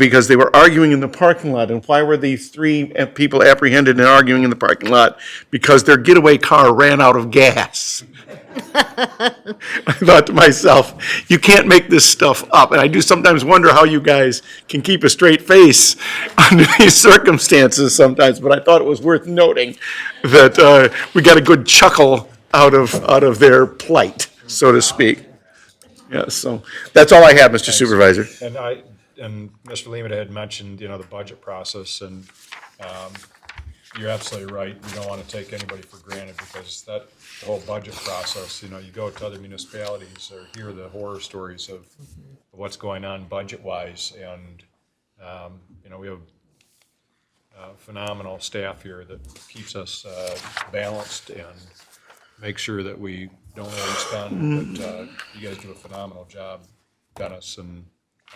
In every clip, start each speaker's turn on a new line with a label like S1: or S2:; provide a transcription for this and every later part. S1: because they were arguing in the parking lot. And why were these three eh, people apprehended and arguing in the parking lot? Because their getaway car ran out of gas. I thought to myself, you can't make this stuff up. And I do sometimes wonder how you guys can keep a straight face under these circumstances sometimes, but I thought it was worth noting that uh, we got a good chuckle out of, out of their plight, so to speak. Yeah, so that's all I have, Mr. Supervisor.
S2: And I, and Mr. Lehman had mentioned, you know, the budget process, and um, you're absolutely right. We don't want to take anybody for granted because that the whole budget process, you know, you go to other municipalities or hear the horror stories of what's going on budget-wise, and, um, you know, we have uh, phenomenal staff here that keeps us uh, balanced and makes sure that we don't overspend, but uh, you guys do a phenomenal job, Dennis and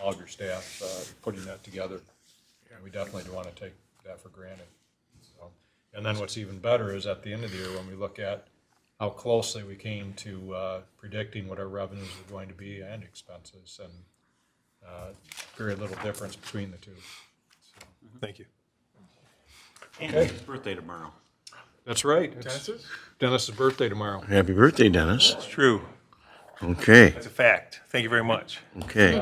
S2: all of your staff, uh, putting that together. And we definitely do want to take that for granted. So, And then what's even better is at the end of the year, when we look at how closely we came to uh, predicting what our revenues were going to be and expenses, and uh, very little difference between the two.
S3: Thank you.
S4: Andy's birthday tomorrow.
S2: That's right. It's Dennis's birthday tomorrow.
S1: Happy birthday, Dennis.
S3: It's true.
S1: Okay,
S3: It's a fact. Thank you very much.
S1: okay.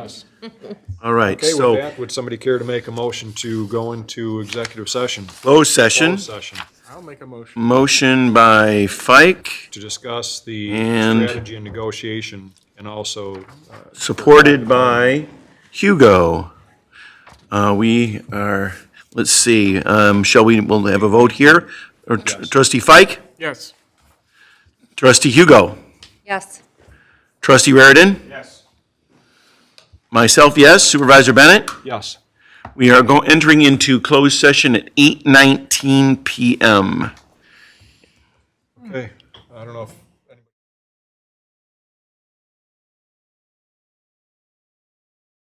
S1: All right,
S2: Okay, with
S1: so
S2: that, would somebody care to make a motion to go into executive session?
S1: closed session,
S2: Closed Session, I'll make a motion.
S1: motion by Fike,
S2: To discuss the
S1: And-
S2: strategy and negotiation, and also, uh,
S1: supported by Hugo. Uh, we are, let's see, um, shall we, we'll have a vote here? Or tr- trustee Fike?
S5: Yes.
S1: Trustee Hugo?
S6: Yes.
S1: Trustee Raritan?
S5: Yes.
S1: Myself, yes. Supervisor Bennett?
S2: yes.
S1: We are go, entering into closed session at eight nineteen PM.
S2: Okay, I don't know if